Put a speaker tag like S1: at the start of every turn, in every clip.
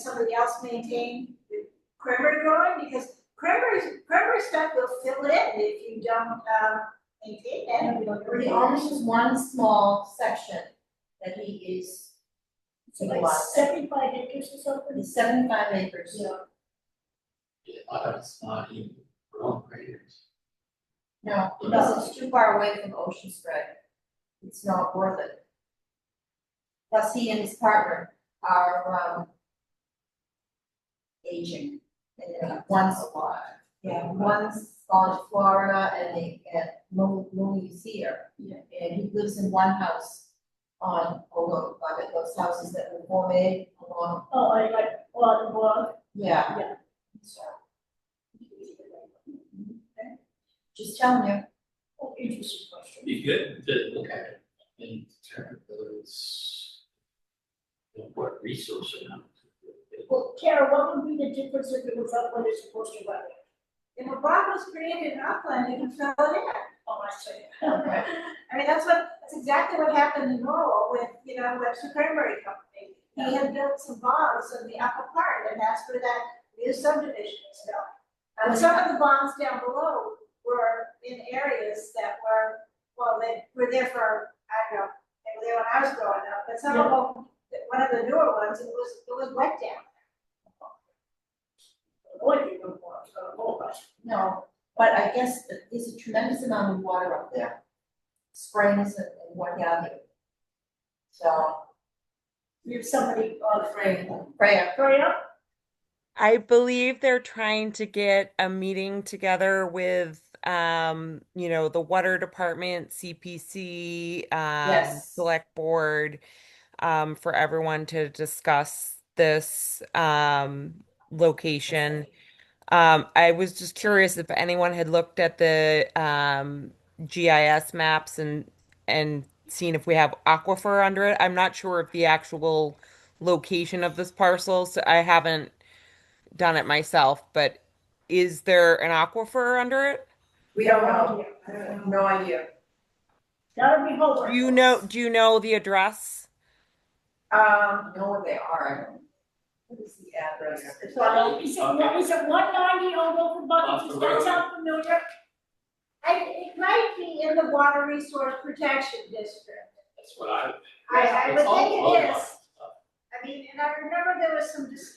S1: somebody else maintain the cranberry growing, because cranberry, cranberry stuff will fill in if you don't, um, maintain it.
S2: There only is one small section that he is.
S3: So like seventy-five acres or something?
S2: It's seventy-five acres.
S4: Yeah, I thought it's not even wrong graders.
S2: No, because it's too far away from Ocean Spray. It's not worth it. Plus, he and his partner are, um, aging, and they're once a lot. Yeah, one's on Florida and they, and Lou, Lou is here.
S3: Yeah.
S2: And he lives in one house on, along, like those houses that were formed along,
S3: Oh, I like, well, the one,
S2: yeah.
S3: Yeah.
S2: So, just telling you.
S3: oh, interesting question.
S4: Be good to look at it and determine whether it's you know, what resource or not.
S3: Well, Kara, what would be the difference if it was up when it's supposed to wet?
S1: If a bog was created in Upland, you can fill it in.
S3: Oh, I see.
S2: Okay.
S1: I mean, that's what, that's exactly what happened in Norwell with, you know, Webster Cranberry Company. He had built some bogs in the upper part, and that's where that new subdivision is built. And some of the bogs down below were in areas that were, well, they were there for, I don't know, they were there when I was growing up, but some of them, one of the newer ones, it was, it was wet down.
S3: What do you know for, uh, all of us?
S2: No, but I guess that there's a tremendous amount of water up there. Springs and and what have you. So,
S3: If somebody, uh,
S2: Freya, Freya,
S3: hurry up,
S5: I believe they're trying to get a meeting together with, um, you know, the water department, CPC, um,
S2: Yes.
S5: select board, um, for everyone to discuss this, um, location. Um, I was just curious if anyone had looked at the, um, GIS maps and, and seen if we have aquifer under it. I'm not sure if the actual location of this parcel, so I haven't done it myself, but is there an aquifer under it?
S2: we don't know, I have no idea.
S3: that'll be homework.
S5: Do you know do you know the address?
S2: Um, know what they are. What is the address?
S3: Is it- is it, what, is it one ninety on
S4: Off
S3: Open Bucket,
S4: the
S3: does that
S4: road.
S3: sound familiar?
S1: I, it might be in the Water Resource Protection District.
S4: That's what I.
S1: I, I
S4: It's
S1: would
S4: all low
S1: think it
S4: line
S1: is.
S4: stuff.
S1: I mean, and I remember there was some, dis-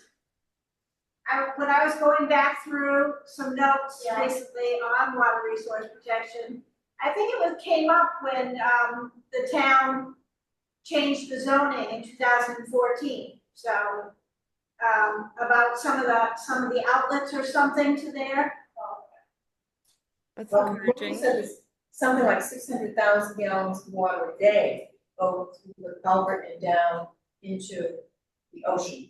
S1: I, when I was going back through some notes
S3: Yeah.
S1: recently on water resource protection, I think it was, came up when, um, the town changed the zoning in two thousand and fourteen, so, um, about some of the, some of the outlets or something to there.
S5: That's
S2: Well,
S5: encouraging.
S2: He said it's something like six hundred thousand gallons of water a day go through the culvert and down into the ocean.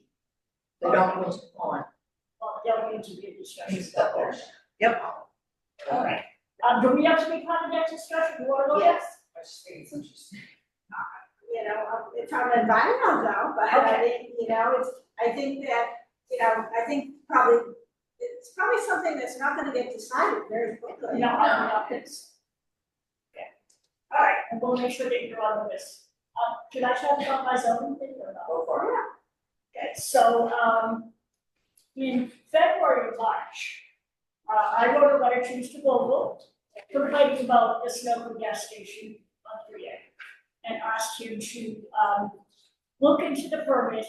S2: They don't go into the pond.
S3: Well, that'll need to be a discussion.
S2: It's up there. Yep.
S3: All right, um, do we have to be part of that discussion, you wanna look at?
S2: Yes, I just think it's interesting.
S1: you know, if I'm environmental though, but I mean, you know, it's, I think that, you know, I think probably, it's probably something that's not gonna get decided very quickly.
S3: No, I'm not, it's. Okay. All right, and we'll make sure that you're on the list. Uh, can I talk about my zoning thing or not?
S2: Go for it.
S3: Okay, so, um, in February, or March, uh, I wrote a letter to Mr. Vogel complaining about this local gas station on three A. And asked him to, um, look into the permit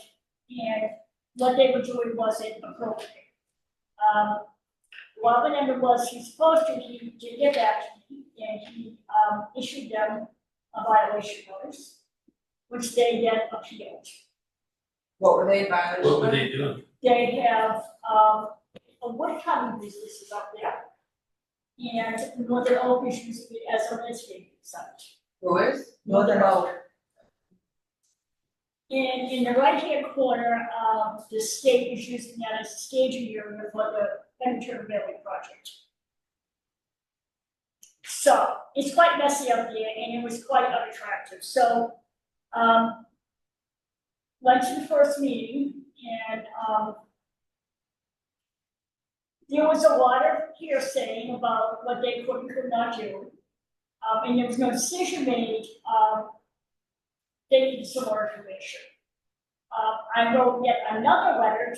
S3: and what they were doing wasn't appropriate. Um, Robin Emmer was, he's supposed to, he did get back to me, and he, um, issued them a violation notice, which they then appealed
S2: What were they in violation of?
S4: What were they doing?
S3: they have, um, a wood cutting business is up there. And Northern Oak is using it as a landscape site.
S2: Brewers?
S3: Northern
S2: Oak.
S3: In, in the right-hand corner, um, the state is using that as a staging area for the Pennington Valley project. So, it's quite messy up there, and it was quite unattractive, so, um, went to the first meeting, and, um, there was a lot of hearsay about what they could and could not do, um, and there was no decision made, um, they need some more information. Uh, I wrote Um, yet another letter